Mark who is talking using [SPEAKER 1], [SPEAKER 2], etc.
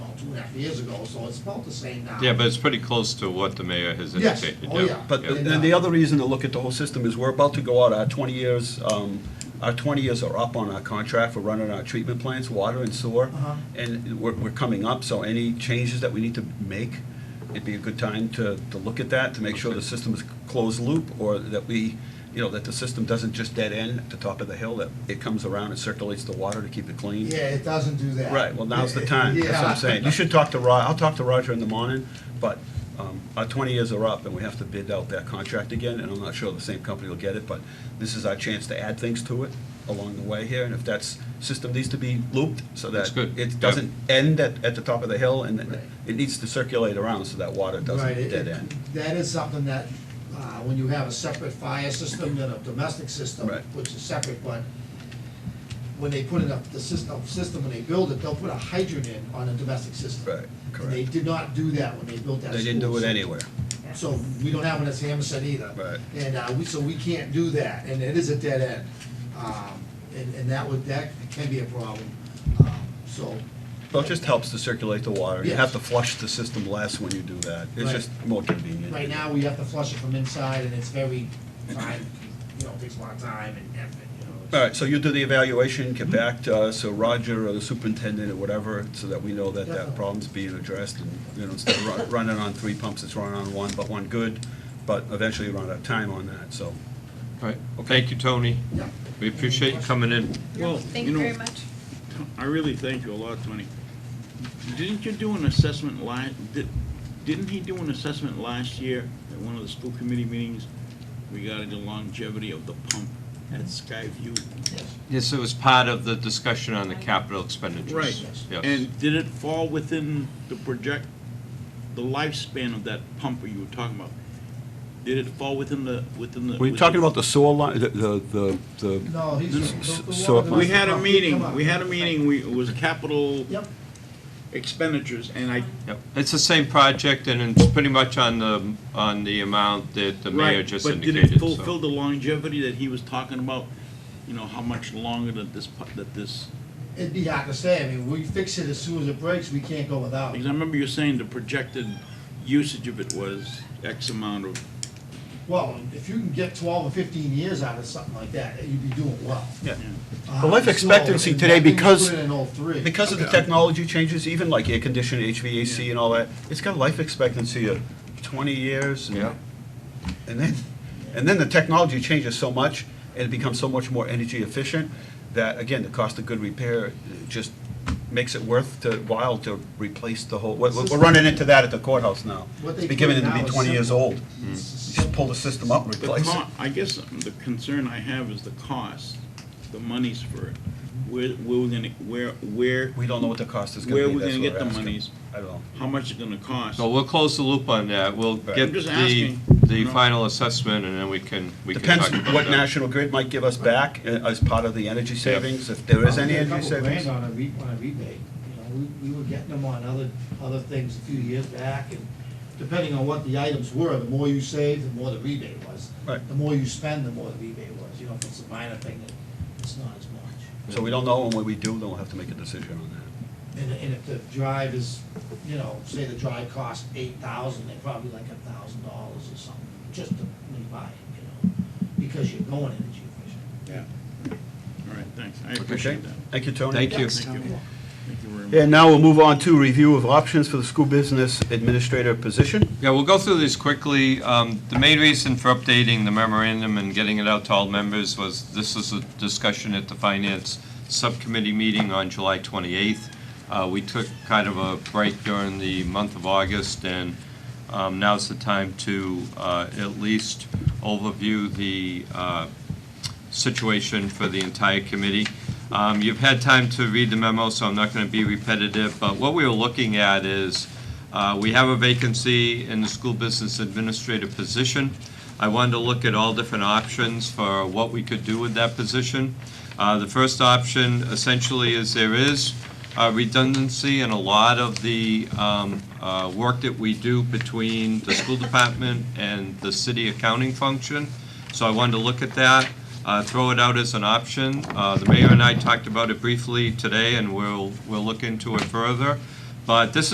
[SPEAKER 1] half years ago, so it's about the same now.
[SPEAKER 2] Yeah, but it's pretty close to what the mayor has
[SPEAKER 1] Yes.
[SPEAKER 2] indicated.
[SPEAKER 1] Oh, yeah.
[SPEAKER 3] But,
[SPEAKER 1] Yeah.
[SPEAKER 3] and the other reason to look at the whole system is we're about to go out, our 20 years, um, our 20 years are up on our contract for running our treatment plants, water and sewer,
[SPEAKER 1] Uh-huh.
[SPEAKER 3] and we're, we're coming up, so any changes that we need to make, it'd be a good time to, to look at that, to make sure the system is closed loop, or that we, you know, that the system doesn't just dead end at the top of the hill, that it comes around and circulates the water to keep it clean.
[SPEAKER 1] Yeah, it doesn't do that.
[SPEAKER 3] Right, well, now's the time, that's what
[SPEAKER 1] Yeah.
[SPEAKER 3] I'm saying. You should talk to Ro, I'll talk to Roger in the morning, but um, our 20 years are up, and we have to bid out that contract again, and I'm not sure the same company will get it, but this is our chance to add things to it along the way here, and if that's, system needs to be looped so
[SPEAKER 2] That's
[SPEAKER 3] that
[SPEAKER 2] good, yeah.
[SPEAKER 3] it doesn't end at, at the top of the hill, and
[SPEAKER 1] Right.
[SPEAKER 3] it- it needs to circulate around so that water
[SPEAKER 1] Right,
[SPEAKER 3] doesn't
[SPEAKER 1] it-
[SPEAKER 3] dead
[SPEAKER 1] it-
[SPEAKER 3] end.
[SPEAKER 1] That is something that, uh, when you have a separate fire system than a domestic system,
[SPEAKER 3] Right.
[SPEAKER 1] which is separate, but when they put it up, the system, system, when they build it, they'll put a hydrant in on a domestic system.
[SPEAKER 3] Right,
[SPEAKER 1] And they
[SPEAKER 3] correct.
[SPEAKER 1] did not do that when they built that
[SPEAKER 3] They didn't
[SPEAKER 1] school,
[SPEAKER 3] do it
[SPEAKER 1] so-
[SPEAKER 3] anywhere.
[SPEAKER 1] So we don't have one that's Hammerson either.
[SPEAKER 3] Right.
[SPEAKER 1] And, uh, we, so we can't do that, and it is a dead end. Um, and, and that would, that can be a problem, um, so.
[SPEAKER 3] Well, it just helps to circulate the water. You
[SPEAKER 1] Yes.
[SPEAKER 3] have to flush the system less when you do that. It's
[SPEAKER 1] Right.
[SPEAKER 3] just more convenient.
[SPEAKER 1] Right now, we have to flush it from inside, and it's very time, you know, takes a lot of time and effort, you know. it's-
[SPEAKER 3] All right, so you do the evaluation, get back to us, or Roger, or the superintendent, or whatever, so that we know that that
[SPEAKER 1] Definitely.
[SPEAKER 3] problem's being addressed, and, you know, instead of run- running on three pumps, it's running on one, but one good, but eventually you run out of time on that, so.
[SPEAKER 2] Right. Thank you, Tony.
[SPEAKER 1] Yeah.
[SPEAKER 2] We appreciate you coming in.
[SPEAKER 4] Well,
[SPEAKER 5] Thank
[SPEAKER 4] you
[SPEAKER 5] you
[SPEAKER 4] know,
[SPEAKER 5] very much.
[SPEAKER 4] I really thank you a lot, Tony. Didn't you do an assessment la, di- didn't he do an assessment last year at one of the school committee meetings regarding the longevity of the pump at Skyview?
[SPEAKER 2] Yes, it was part of the discussion on the capital expenditures.
[SPEAKER 4] Right.
[SPEAKER 2] Yes.
[SPEAKER 4] And did it fall within the project, the lifespan of that pump you were talking about? Did it fall within the, within the?
[SPEAKER 3] Were you
[SPEAKER 4] within-
[SPEAKER 3] talking about the sewer line, the, the, the,
[SPEAKER 1] No, he's. the- the
[SPEAKER 3] So-
[SPEAKER 1] water
[SPEAKER 4] We
[SPEAKER 1] doesn't
[SPEAKER 4] had
[SPEAKER 1] come
[SPEAKER 4] a
[SPEAKER 1] up, come
[SPEAKER 4] meeting,
[SPEAKER 1] up.
[SPEAKER 4] we had a meeting, we, it was capital
[SPEAKER 1] Yep,
[SPEAKER 4] expenditures, and I
[SPEAKER 2] Yep. It's the same project, and it's pretty much on the, on the amount that the mayor
[SPEAKER 4] Right,
[SPEAKER 2] just
[SPEAKER 4] But did it
[SPEAKER 2] indicated,
[SPEAKER 4] fulfill
[SPEAKER 2] so.
[SPEAKER 4] the longevity that he was talking about? You know, how much longer that this, pu- that this,
[SPEAKER 1] it'd be hard to say, I mean, we fix it as soon as it breaks, we can't go without
[SPEAKER 4] because
[SPEAKER 1] it.
[SPEAKER 4] I remember you saying the projected usage of it was X amount of,
[SPEAKER 1] Well, if you can get twelve or fifteen years out of something like that, you'd be doing well.
[SPEAKER 3] Yeah.
[SPEAKER 1] Uh,
[SPEAKER 3] The life
[SPEAKER 1] so,
[SPEAKER 3] expectancy
[SPEAKER 1] and
[SPEAKER 3] today,
[SPEAKER 1] nothing was
[SPEAKER 3] because-
[SPEAKER 1] Put in in '03.
[SPEAKER 3] because of the technology changes, even like air conditioning, HVAC and all that, it's got a life expectancy of twenty years. and-
[SPEAKER 2] Yeah.
[SPEAKER 3] And then, and then the technology changes so much, and it becomes so much more energy efficient, that, again, the cost of good repair uh, just makes it worth the while to replace the whole, we're, we're running into that at the courthouse now.
[SPEAKER 1] What they
[SPEAKER 3] It's beginning
[SPEAKER 1] put
[SPEAKER 3] to
[SPEAKER 1] in now
[SPEAKER 3] be
[SPEAKER 1] is
[SPEAKER 3] twenty years
[SPEAKER 1] simple.
[SPEAKER 3] old. You Just pull the system up,
[SPEAKER 4] the
[SPEAKER 3] replace it.
[SPEAKER 4] co- I guess the concern I have is the cost, the monies for it. Where, where we're gonna, where, where,
[SPEAKER 3] We don't know what the cost is
[SPEAKER 4] Where
[SPEAKER 3] gonna be,
[SPEAKER 4] we
[SPEAKER 3] that's
[SPEAKER 4] gonna
[SPEAKER 3] what
[SPEAKER 4] get
[SPEAKER 3] we're
[SPEAKER 4] the
[SPEAKER 3] asking.
[SPEAKER 4] monies?
[SPEAKER 3] I don't know.
[SPEAKER 4] how much it's gonna cost?
[SPEAKER 2] So we'll close the loop on that. We'll
[SPEAKER 3] Right.
[SPEAKER 2] get
[SPEAKER 4] I'm just
[SPEAKER 2] the,
[SPEAKER 4] asking, you
[SPEAKER 2] the
[SPEAKER 4] know.
[SPEAKER 2] final assessment, and then we can, we can
[SPEAKER 3] Depends
[SPEAKER 2] talk about that.
[SPEAKER 3] what National Grid might give us back uh, as part of the energy savings, if there is any
[SPEAKER 1] Probably a couple
[SPEAKER 3] energy savings.
[SPEAKER 1] grand on a re, on a rebate, you know, we, we were getting them on other, other things a few years back, and depending on what the items were, the more you saved, the more the rebate was.
[SPEAKER 3] Right.
[SPEAKER 1] The more you spend, the more the rebate was, you know, if it's a minor thing, then it's not as much.
[SPEAKER 3] So we don't know, and when we do, then we'll have to make a decision on that.
[SPEAKER 1] And, and if the drive is, you know, say the drive costs eight thousand, they're probably like a thousand dollars or something, just to rebuy it, you know, because you're going energy efficient.
[SPEAKER 4] Yeah. All right, thanks, I appreciate
[SPEAKER 3] Okay?
[SPEAKER 4] that.
[SPEAKER 3] Thank you, Tony.
[SPEAKER 2] Thank you.
[SPEAKER 4] Thank you. Thank you very much.
[SPEAKER 3] And now we'll move on to review of options for the school business administrator position.
[SPEAKER 2] Yeah, we'll go through this quickly. Um, The main reason for updating the memorandum and getting it out to all members was, this was a discussion at the Finance Subcommittee meeting on July 28th. Uh, We took kind of a break during the month of August, and um, now's the time to uh, at least overview the uh, situation for the entire committee. Um, You've had time to read the memo, so I'm not going to be repetitive, but what we were looking at is, uh, we have a vacancy in the school business administrator position. I wanted to look at all different options for what we could do with that position. Uh, The first option essentially is there is uh, redundancy in a lot of the um, uh, work that we do between the school department and the city accounting function. So I wanted to look at that, uh, throw it out as an option. Uh, The mayor and I talked about it briefly today, and we'll, we'll look into it further. But this